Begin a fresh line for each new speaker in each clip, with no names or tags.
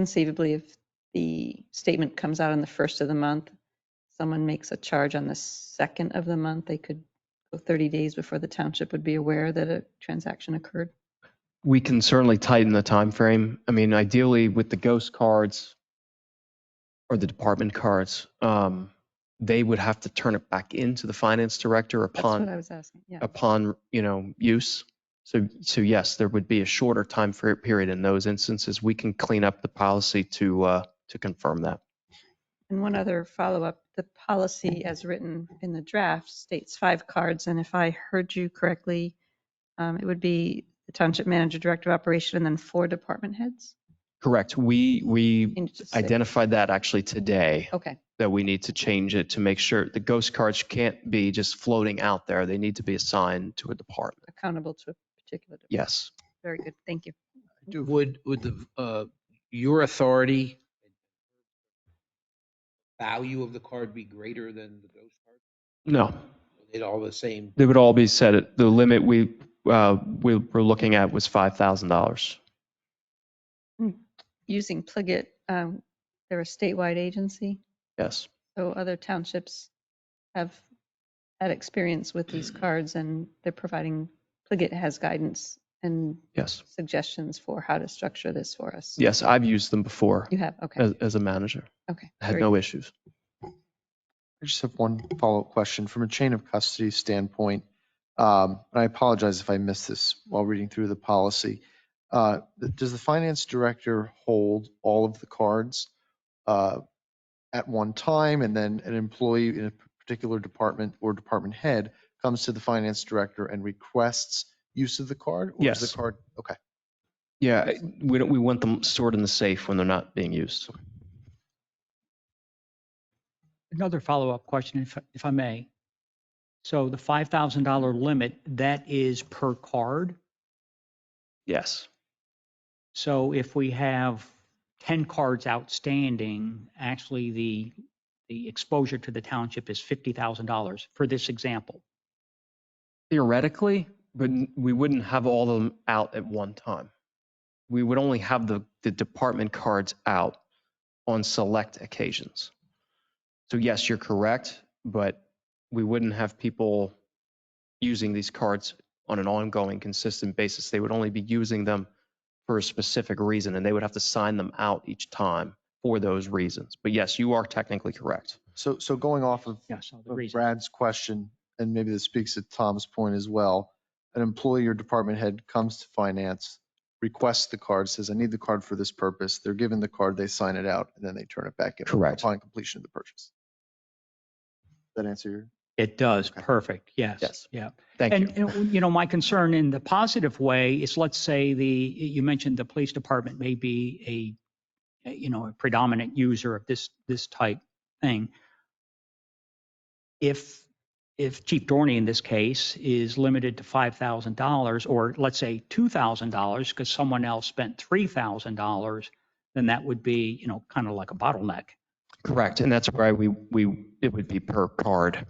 Conceivably, if the statement comes out on the first of the month, someone makes a charge on the second of the month, they could go 30 days before the township would be aware that a transaction occurred.
We can certainly tighten the time frame. I mean, ideally with the ghost cards or the department cards, um, they would have to turn it back into the finance director
That's what I
upon,
was asking, yeah.
upon, you know, use. So, so yes, there would be a shorter time fer- period in those instances. We can clean up the policy to, uh, to confirm that.
And one other follow-up, the policy as written in the draft states five cards, and if I heard you correctly, um, it would be the township manager, director of operation, and then four department heads?
Correct. We, we
Change it to six.
identified that actually today.
Okay,
that we need to change it to make sure the ghost cards can't be just floating out there. They need to be assigned to a department.
accountable to a particular, de-
Yes.
very good, thank you.
Would, would the, uh, your authority value of the card be greater than the ghost card?
No,
It all the same?
they would all be set at the limit we, uh, we were looking at was $5,000.
Using Pliget, um, they're a statewide agency,
Yes.
so other townships have had experience with these
Mm.
cards, and they're providing, Pliget has guidance and
Yes.
suggestions for how to structure this for us.
Yes. I've used them before
You have, okay,
as, as a manager.
okay.
Had
very
no issues.
I just have one follow-up question. From a chain of custody standpoint, um, and I apologize if I missed this while reading through the policy. uh, th- Does the finance director hold all of the cards uh, at one time? And then an employee in a particular department or department head comes to the finance director and requests use of the card? Or is
Yes.
the card, okay.
Yeah. I- We don't, we want them stored in the safe when they're not being used.
Another follow-up question, if, if I may. So the $5,000 limit, that is per card?
Yes.
So if we have 10 cards outstanding, actually the, the exposure to the township is $50,000 for this example.
Theoretically, but n- we wouldn't have all of them out at one time. We would only have the, the department cards out on select occasions. So yes, you're correct, but we wouldn't have people using these cards on an ongoing, consistent basis. They would only be using them for a specific reason, and they would have to sign them out each time for those reasons. But yes, you are technically correct.
So, so going off of
Yeah, so the
of
reason.
Brad's question, and maybe this speaks to Tom's point as well. An employee or department head comes to finance, requests the card, says, I need the card for this purpose. They're given the card, they sign it out, and then they turn it back in.
Correct.
Upon completion of the purchase. That answer your?
It does,
Okay.
perfect, yes.
Yes.
Yeah.
Thank you.
And, and, you know, my concern in the positive way is, let's say the, you mentioned the police department may be a, you know, a predominant user of this, this type thing. If, if Chief Dorney in this case is limited to $5,000 or let's say $2,000 because someone else spent $3,000, then that would be, you know, kind of like a bottleneck.
Correct, and that's why we, we, it would be per card.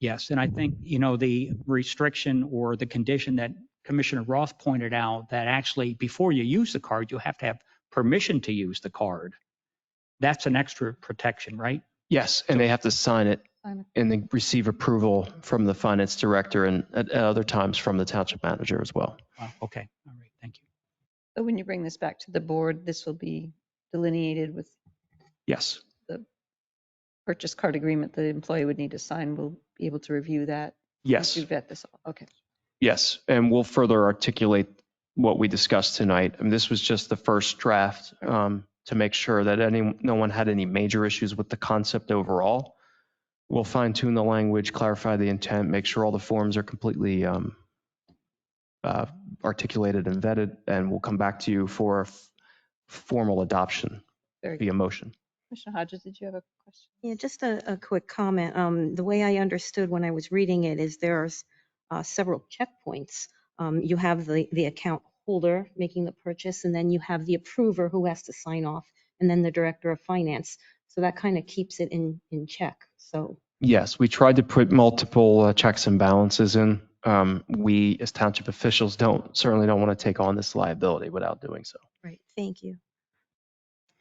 Yes, and I think, you know, the restriction or the condition that Commissioner Roth pointed out, that actually before you use the card, you have to have permission to use the card. That's an extra protection, right?
Yes, and they have to sign it
Sign it.
and then receive approval from the finance director and at at other times from the township manager as well.
Wow, Okay, all right, thank you.
So when you bring this back to the board, this will be delineated with
Yes,
purchase card agreement that the employee would need to sign. We'll be able to review that. once
yes,
You vet this, all. okay.
yes, and we'll further articulate what we discussed tonight. And this was just the first draft um, to make sure that any, no one had any major issues with the concept overall. We'll fine tune the language, clarify the intent, make sure all the forms are completely um, uh, articulated and vetted, and we'll come back to you for f- formal adoption
Very good.
via motion.
Commissioner Hodges, did you have a question?
Yeah, just a, a quick comment. Um, the way I understood when I was reading it is there's uh, several checkpoints. Um, you have the, the account holder making the purchase, and then you have the approver who has to sign off, and then the director of finance. So that kind of keeps it in, in check. So
Yes, we tried to put multiple uh, checks and balances in. Um, We, as township officials, don't, certainly don't want to take on this liability without doing so.
Right. Thank you.